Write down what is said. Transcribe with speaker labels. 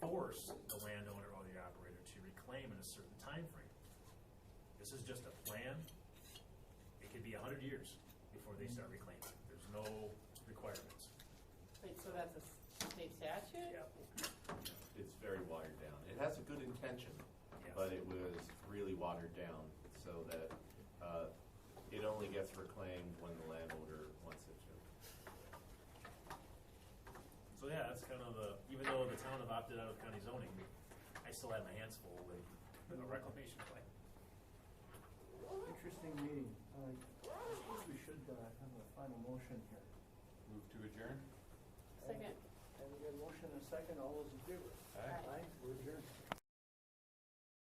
Speaker 1: force the landowner or the operator to reclaim in a certain time frame. This is just a plan. It could be a hundred years before they start reclaiming. There's no requirements.
Speaker 2: Wait, so that's a s- state statute?
Speaker 1: Yep.
Speaker 3: It's very watered down. It has a good intention, but it was really watered down so that uh, it only gets reclaimed when the landowner wants it to.
Speaker 1: So yeah, that's kind of the, even though the town have opted out of county zoning, I still have my hands full with a reclamation plan.
Speaker 4: Interesting meeting. Uh, I suppose we should uh, have a final motion here.
Speaker 3: Move to adjourn?
Speaker 2: Second.
Speaker 4: And we got a motion and a second. All those in favor?
Speaker 2: Aye.
Speaker 4: Aye, we're adjourned.